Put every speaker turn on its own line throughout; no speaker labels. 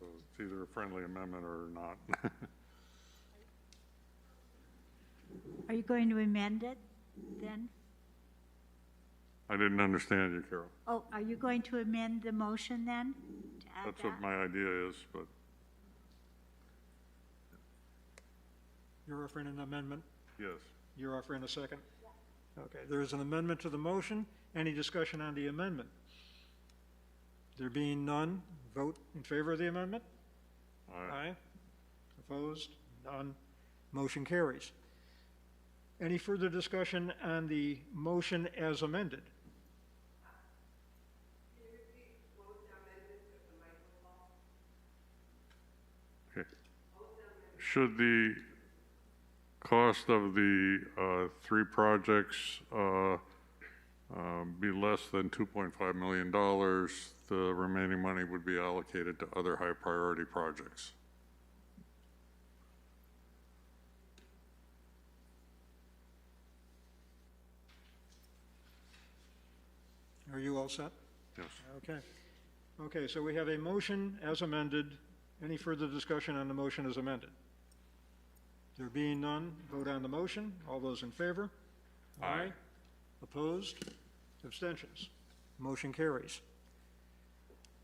It's either a friendly amendment or not.
Are you going to amend it then?
I didn't understand you, Carol.
Oh, are you going to amend the motion then? to add
That's what
that?
my idea is, but
You're offering an amendment,
yes.
you're offering a second? Okay, there is an amendment to the motion. Any discussion on the amendment? There being none, vote in favor of the amendment? Uh,
I
Opposed? None. Motion carries. Any further discussion on the motion as amended?
okay. Should the cost of the uh, three projects uh, um, be less than $2.5 million, the remaining money would be allocated to other high-priority projects.
Are you all set?
Yes.
Okay. Okay, so we have a motion as amended. Any further discussion on the motion as amended? There being none, vote on the motion. All those in favor?
Aye.
Opposed? Abstentions? Motion carries.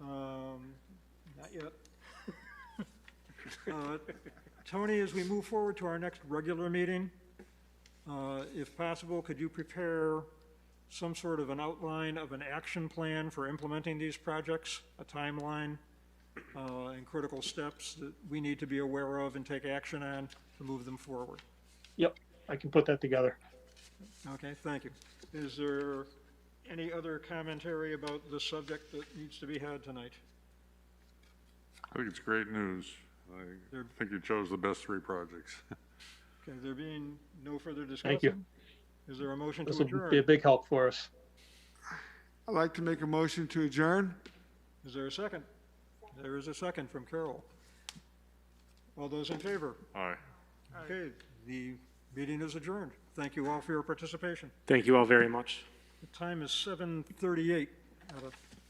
Um, Not yet. Uh, Tony, as we move forward to our next regular meeting, uh, if possible, could you prepare some sort of an outline of an action plan for implementing these projects, a timeline, uh, and critical steps that we need to be aware of and take action on to move them forward?
Yep, I can put that together.
Okay, thank you. Is there any other commentary about the subject that needs to be had tonight?
I think it's great news. I
They're-
think you chose the best three projects.
Okay, there being no further discussion?
Thank you.
Is there a motion
This
to
will be a
adjourn?
big help for us.
I'd like to make a motion to adjourn.
Is there a second? There is a second from Carol. All those in favor?
Aye.
Okay, the meeting is adjourned. Thank you all for your participation.
Thank you all very much.
The time is 7:38 out of